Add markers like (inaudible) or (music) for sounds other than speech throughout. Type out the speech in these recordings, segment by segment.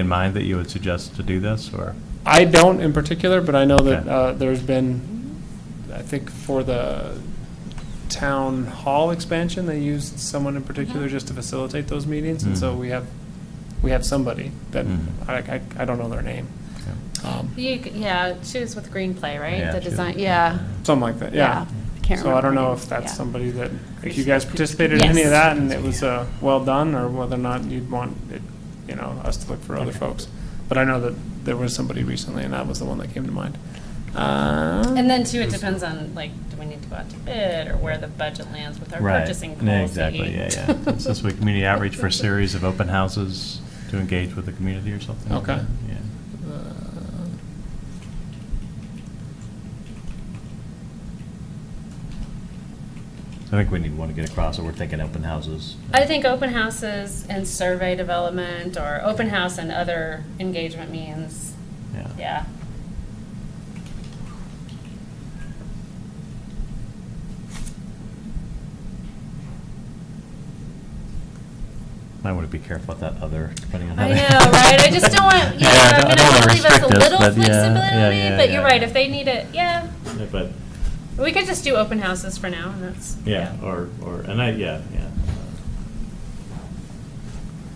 in mind that you would suggest to do this, or? I don't in particular, but I know that Okay. uh, there's been, I think for the town hall expansion, they used someone in particular just to facilitate those meetings, and so Mhm. we have, we have somebody that, Mhm. I, I I don't know their name. Um, You, c- yeah, she was with Green Play, right? Yeah, The she- design, yeah. Something like that, yeah. I Can't remember. So I don't her know name. if that's Yeah. somebody that, if you guys participated in any of Yes. that and it was uh, well done, or whether or not you'd want, it, you know, us to look for other folks. But I know that there was somebody recently, and that was the one that came to mind. Um, And And then too, it depends on, like, do we need to go out to bid or where the budget lands with our Right. purchasing No, policy? Exactly, yeah, yeah. (laughs) It's this week, community outreach for a series of open houses to engage with the community or something. like Okay. that, Yeah. uh, So I think we need one to get across, or we're thinking open houses. I think open houses and survey development or open house and other engagement means, Yeah. yeah. I want to be careful with that other, depending on. how I they- know, right? I just don't (laughs) want, you know, Yeah, I I'm don't- I gonna don't wanna wanna leave us a restrict us, little but yeah, yeah, flexibility, yeah, but you're yeah. right, if they need it, yeah. Yeah, But, We could just do open houses for now, and that's. yeah, or, or, and I, yeah, yeah.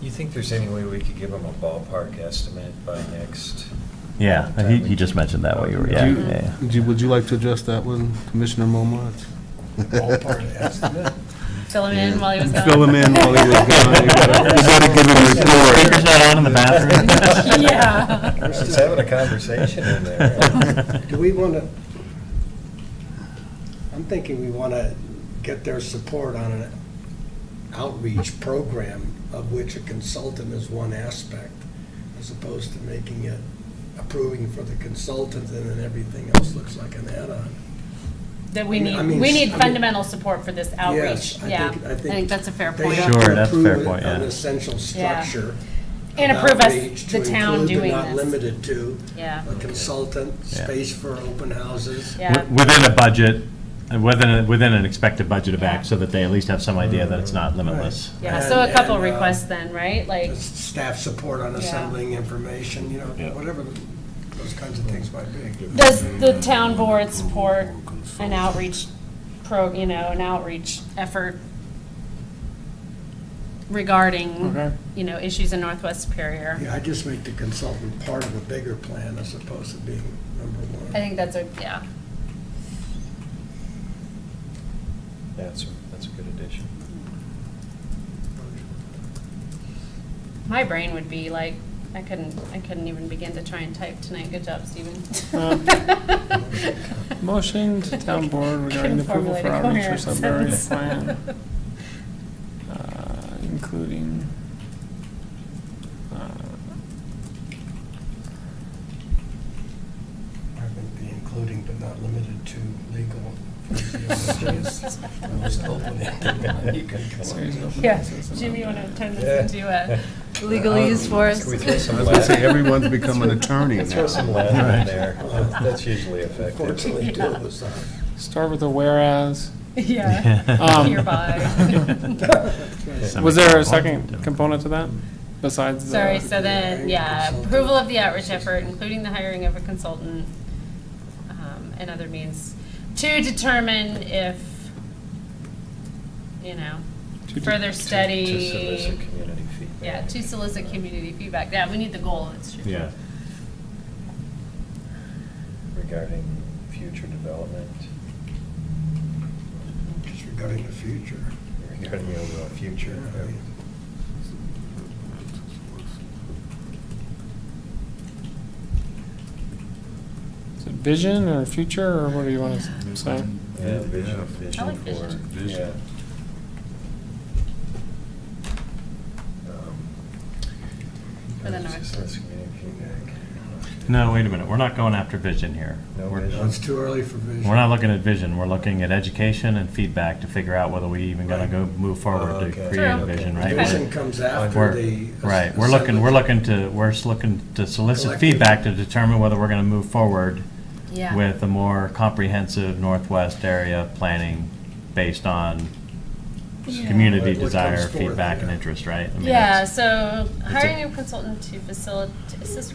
You think there's any way we could give them a ballpark estimate by next? Yeah, he, he just mentioned that while you were, yeah, Do you- yeah. yeah. Would you- Would you like to address that one, Commissioner Momards? Fill him in while he was gone. Fill him in while he (laughs) was gone. You gotta- you gotta give him him a report. Speaker's not on in the (laughs) bathroom. (laughs) Yeah. We're just having a conversation in there. Do we want to, I'm thinking we want to get their support on an outreach program of which a consultant is one aspect, as opposed to making it approving for the consultant and then everything else looks like an add-on. That we I mean- need, I mean, we need I mean- fundamental support for this outreach, Yes, I yeah. think- I think that's a fair point. They have Sure, to that's a fair approve point, it an yeah. essential Yeah. structure. And of approve us, outreach the to town include but doing Not this. limited to Yeah, a consultant, Yeah. space for open houses. (laughs) yeah. Wi- Within a budget, and within, a- within an expected budget of Yeah. X, so that they at least have some idea that it's not limitless. Yeah, so a And- couple and, uh, requests then, right? Like, staff support on assembling information, you know, Yeah. whatever those kinds of things might be. does the town board support an outreach pro, you know, an outreach effort Okay. regarding, you know, issues in Northwest Superior? Yeah, I just make the consultant part of a bigger plan as opposed to being number one. I think that's a, yeah. That's, a- that's a good addition. My brain would be like, I couldn't, I couldn't even begin to try and type tonight. Good job, Stephen. Motion to (laughs) town board regarding Couldn't the approval formulate for a outreach or coherent suburban sentence. plan, uh, including, uh, I think the including but not limited to (laughs) legal. series of open (laughs) Yeah, houses and Jimmy, you other- want to turn this Yeah. into uh, (laughs) a legalese for us? Can we throw some I was gonna say, Latin- everyone's (laughs) become an attorney now. Throw some Latin in there. That's usually (laughs) effective. Fortunately, two of us Start with a whereas. Yeah. (laughs) Um, Hereby. (laughs) (laughs) are. Was there a second component to that besides the? Sorry, so then, yeah, approval of the outreach effort, including the hiring of a consultant um, and other means to determine if, you know, To de- further study. To solicit community feedback. Yeah, to solicit community feedback. Yeah, we need the goal, it's true. Yeah. Regarding future development, Just regarding the future. regarding the overall future. Is it Vision or future, or what do you want to say? Yeah, vision, I vision like for, vision. yeah. Vision. Um, For the it's north. just less Um, community feedback. No, wait a minute, we're not going after vision here. No We're- vision. No, It's too early for vision. We're not looking at vision, we're looking at education and feedback to figure out whether we even gonna go, move Oh, forward to okay. create a True. vision, right? Okay. Vision comes after the. We're, right, we're looking, we're looking to, we're s- looking to solicit feedback to determine whether we're gonna move forward Yeah. with a more comprehensive Northwest area planning based on Yeah. community What- what desire, comes forth, feedback, and yeah. interest, right? I mean, Yeah, it's- so a- hiring a consultant to facilitate, assist with